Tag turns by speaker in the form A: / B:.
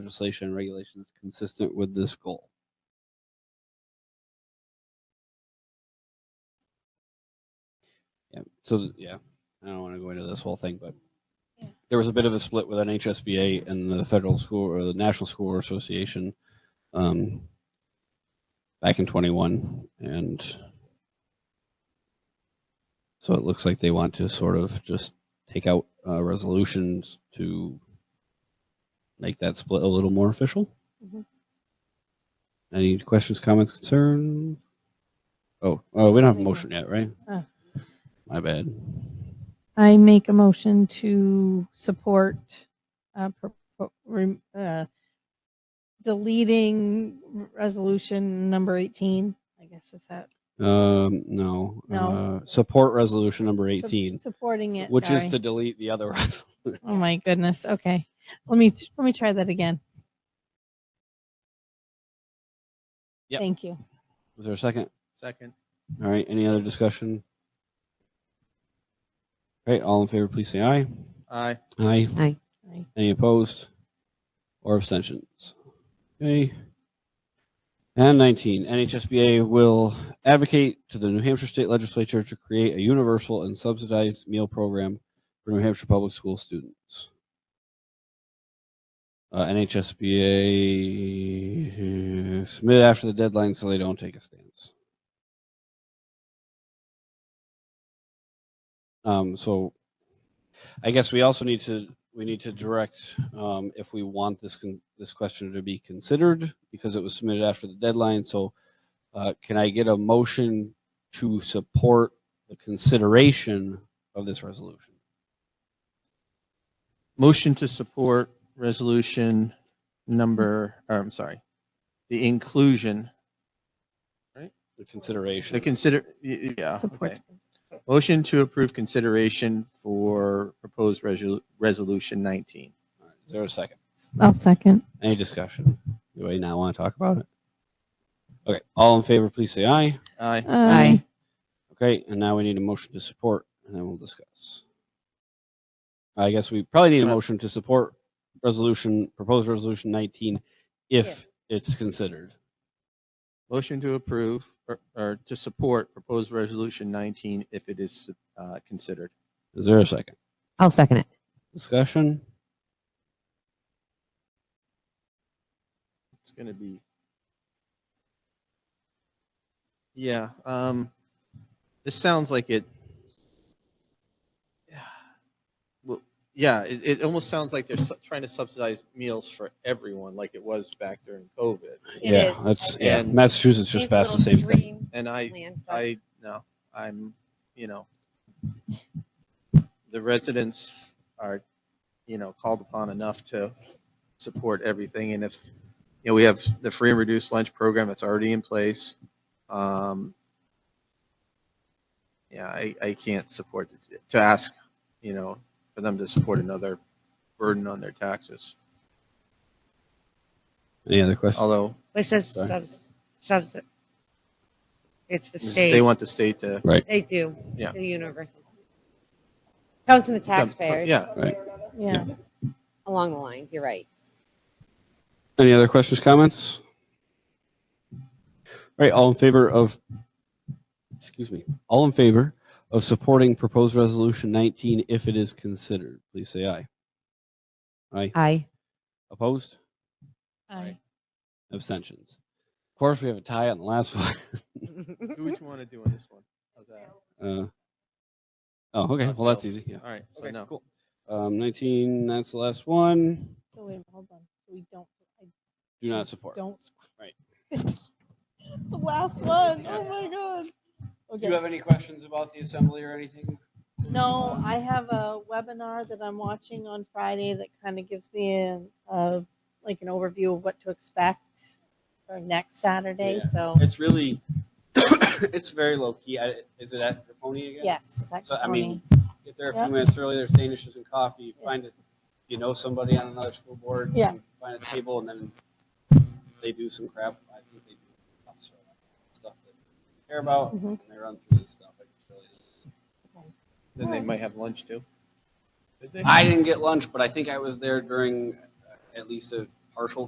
A: legislation and regulations consistent with this goal. Yeah, so th- yeah, I don't want to go into this whole thing, but
B: Yeah.
A: there was a bit of a split with NHSBA and the federal school or the National School Association um, back in 21 and so it looks like they want to sort of just take out uh, resolutions to make that split a little more official.
B: Mhm.
A: Any questions, comments, concerns? Oh, oh, we don't have a
B: Right now.
A: motion yet, right?
B: Oh.
A: My bad.
B: I make a motion to support uh, pro- pro- rem- uh, deleting resolution number 18. I guess is that
A: Um, no.
B: No.
A: Uh, support resolution number
B: Sup-
A: 18,
B: supporting it,
A: which is
B: sorry.
A: to delete the other resolution.
B: Oh my goodness. Okay. Let me let me try that again.
A: Yep.
B: Thank you.
A: Is there a second?
C: Second.
A: All right. Any other discussion? All right. All in favor, please say aye.
C: Aye.
A: Aye.
B: Aye.
A: Any opposed or abstentions? Okay. And 19, NHSBA will advocate to the New Hampshire State Legislature to create a universal and subsidized meal program for New Hampshire public school students. Uh, NHSBA uh, submit after the deadline so they don't take a stance. Um, so I guess we also need to, we need to direct, um, if we want this, con- this question to be considered because it was submitted after the deadline. So, uh, can I get a motion to support the consideration of this resolution?
C: Motion to support resolution number, or I'm sorry, the inclusion,
A: The consideration.
C: the consider, y- y- yeah.
B: Support.
C: okay. Motion to approve consideration for proposed resolu- resolution 19.
A: All right, Is there a second?
B: I'll second.
A: Any discussion? Anybody now want to talk about it? Okay, all in favor, please say aye.
C: Aye.
B: Um,
D: Um,
B: Aye.
A: Okay, and now we need a motion to support, and then we'll discuss. I guess we probably need a motion to support resolution, proposed resolution nineteen, if it's considered.
C: Motion to approve or- or to support proposed resolution 19 if it is uh, considered.
A: Is there a second?
D: I'll second it.
A: Discussion?
C: It's going to be. Yeah, um, this sounds like it. Yeah. Well, yeah, it, it almost sounds like they're su- trying to subsidize meals for everyone like it was back during COVID.
E: It
A: Yeah,
E: is.
A: That's, yeah,
C: And
A: Massachusetts just
E: These
A: passed the same
E: little
A: thing.
E: dream
C: And I,
E: land, but
C: I, no, I'm, you know, the residents are, you know, called upon enough to support everything. And if, you know, we have the free and reduced lunch program that's already in place. Um, yeah, I, I can't support it. to ask, you know, for them to support another burden on their taxes.
A: Any other questions?
C: Although
E: It says
A: Sorry.
E: subs, subs. It's the
C: they
E: state.
C: want the state to,
E: They do.
C: Yeah.
E: The universal. Comes from the taxpayers.
C: yeah,
B: Yeah.
E: Along the lines, you're right.
A: Any other questions, comments? All right, all in favor of, excuse me, all in favor of supporting proposed resolution nineteen if it is considered, please say aye. Aye.
D: Aye.
A: Opposed?
B: Aye.
A: Abstentions. Of course, we have a tie on the last one.
C: do what you want to do on this one. How's that?
A: Uh, oh, okay. Well, that's easy. Yeah.
C: All right, so
A: Okay,
C: no.
A: cool. Um, 19, that's the last one.
B: So wait, hold on. We don't I
A: Do not support.
B: don't
A: Right.
B: the last one. Oh my god. Okay.
A: any questions about the assembly or anything?
B: No, I have a webinar that I'm watching on Friday that kind of gives me a, a like an overview of what to expect for next Saturday.
A: Yeah.
B: So
A: It's really, it's very low key. I, is it at the pony again?
B: yes, that's
A: So, I mean, Get there a
B: Yep.
A: few minutes early. There's Danishes and coffee.
B: Yeah.
A: Find it. You know somebody on another school board.
B: Yeah.
A: you Find a table and then they do some crap. I think they do lots of stuff that they care about
B: Mhm.
A: and they run through this stuff. Like, it's really-
C: Then they might have lunch too. Did they?
A: I didn't get lunch, but I think I was there during uh, at least a partial